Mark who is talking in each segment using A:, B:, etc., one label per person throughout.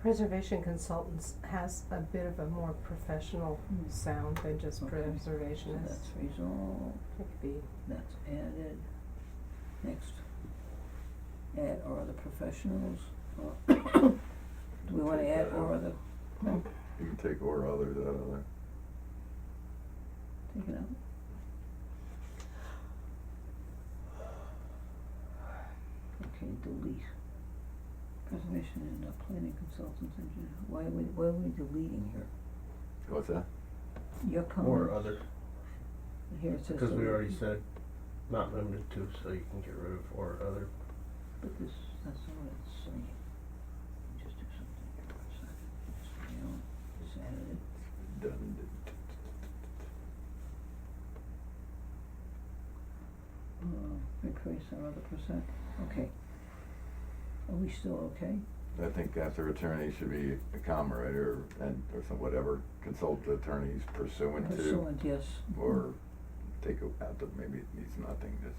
A: preservation consultants has a bit of a more professional
B: Mm.
A: sound than just
B: Okay. So
A: preservationist.
B: that's resolved,
A: It could be,
B: that's added. Next, add or other professionals, or, do we wanna add or other, no,
C: You can take or others out of there.
B: take it out? Okay, delete. Preservation and uh, planning consultants, engineer, why are we, why are we deleting here?
C: What's that?
B: Your comment.
D: Or other,
B: Here it says.
D: because we
B: delete.
D: already said not limited to, so you can get rid of or other.
B: But this, that's not what it's saying. Just do something here for a second. Just, you know, just add it.
C: Redundant.
B: Uh, increase our other percent, okay. Are we still okay?
C: I think after attorney should be a comma, right, or, and, or some, whatever, consult attorneys pursuant to,
B: Pursuant, yes.
C: or take it out the, maybe it needs nothing, just.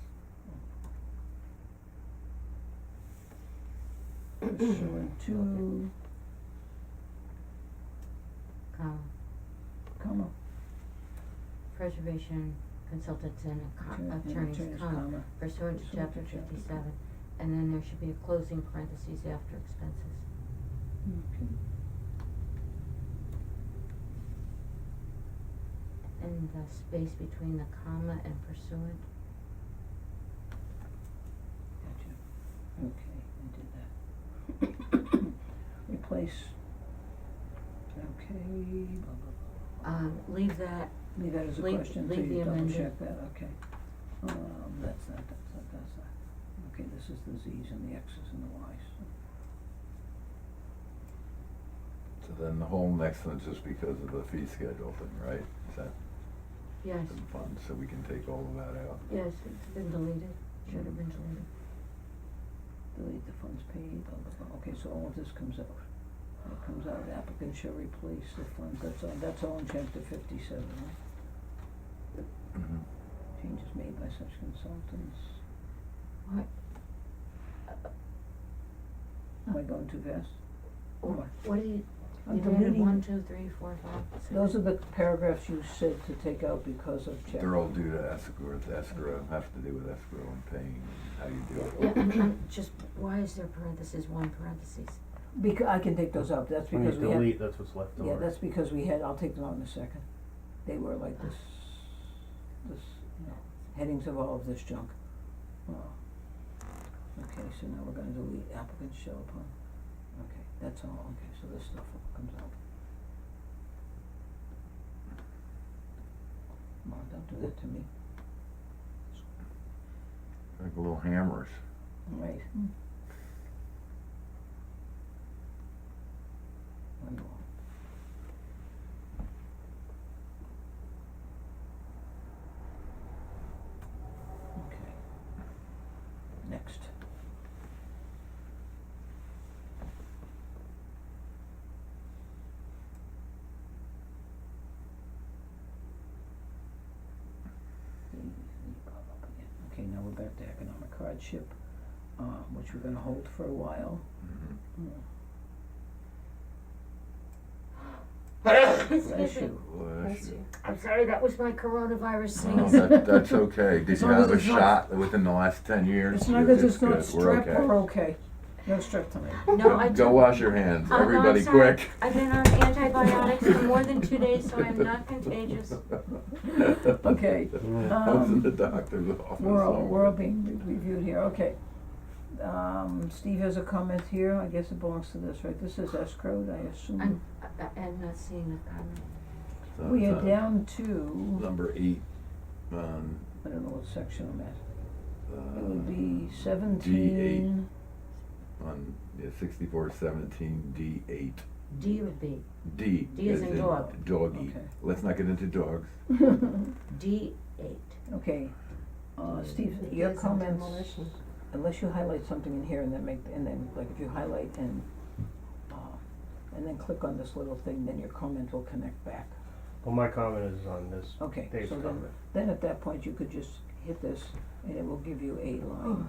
B: Pursuant to,
E: comma,
B: comma,
E: preservation consultants and
B: attorney-
E: co-
B: and
E: attorneys,
B: attorneys,
E: comma,
B: comma.
E: pursuant to
B: pursuant
E: chapter
B: to chapter
E: fifty-seven. And then there should be a closing parentheses after expenses.
B: Okay.
E: And the space between the comma and pursuant,
B: Gotcha. Okay, I did that. Replace, okay, blah, blah, blah, blah, blah.
E: um, leave that,
B: Leave that as a
E: Leave-
B: question, so
E: leave
B: you
E: the
B: double
E: amended.
B: check that, okay. Um, that's that, that's that, that's that. Okay, this is the Z's and the X's and the Y's.
C: So then the whole next one's just because of the fee schedule thing, right? Is that
E: yes,
C: some fun, so we can take all of that out?
E: yes, it's been deleted, should have been deleted.
B: Delete the funds paid, blah, blah, blah. Okay, so all of this comes out. When It comes out, applicant shall replace the funds, that's all, that's all in chapter fifty-seven, right?
C: Mhm.
B: Changes made by such consultants.
E: What,
B: Am I going too fast? Or-
E: what do you,
B: I'm
E: you added
B: deleting-
E: one, two, three, four, five, six?
B: Those are the paragraphs you said to take out because of chapter.
C: They're all due to escrow, it's escrow, have to do with escrow and paying, how you do
E: Yeah,
C: it.
E: I'm, I'm just, why is there parentheses, one parentheses?
B: Becau- I can take those out, that's
D: When you
B: because we have.
D: delete, that's what's left over.
B: Yeah, that's because we had, I'll take them out in a second. They were like this, this, you know, headings of all of this junk. Wow. Okay, so now we're gonna delete applicants show upon, okay, that's all, okay, so this stuff all comes out. Come on, don't do that to me.
C: Like little hammers.
B: Right. One more. Okay. Next. The- the- up again. Okay, now we're back to economic hardship, uh, which we're gonna hold for a while.
C: Mhm.
B: Mm,
E: Excuse
B: bless
E: me.
B: you.
C: Bless
A: bless
C: you.
A: you.
E: I'm sorry, that was my coronavirus
C: No,
E: sneeze.
C: that, that's okay. Did
B: As
C: you
B: long as
C: have a
B: it's not-
C: shot within the last ten years?
B: It's not
C: You're-
B: because it's not
C: good. We're
B: strep,
C: okay.
B: we're okay. No strep tonight.
E: No,
C: Go-
E: I
C: Go
E: took,
C: wash your hands,
E: Uh, I'm- I'm
C: everybody,
E: sorry.
C: quick.
E: I've been on antibiotics for more than two days, so I'm not contagious.
B: Okay,
D: Mm.
C: I was in
B: um,
C: the doctor's office.
B: We're all,
C: all
B: we're all
C: week.
B: being re- reviewed here, okay. Um, Steve has a comment here, I guess it belongs to this, right, this is escrowed, I assume.
E: I'm, I- I- I'm not seeing the comment.
C: So
B: We
C: it's,
B: are
C: uh,
B: down to,
C: Number eight, um,
B: I don't know what section I'm at, it would
C: uh,
B: be seventeen,
C: on, yeah, sixty-four seventeen, D eight.
E: D would be,
C: D
E: D as
C: is
E: in
C: in
E: dog.
C: doggy.
B: Okay.
C: Let's not get into dogs.
E: D eight.
B: okay. Uh, Steve,
A: It
B: your
A: is on
B: comments,
A: demolition.
B: unless you highlight something in here and then make, and then, like, if you highlight and, uh, and then click on this little thing, then your comment will connect back.
D: Well, my comment is on this,
B: Okay,
D: Dave's
B: so
D: comment.
B: then, then at that point, you could just hit this, and it will give you a line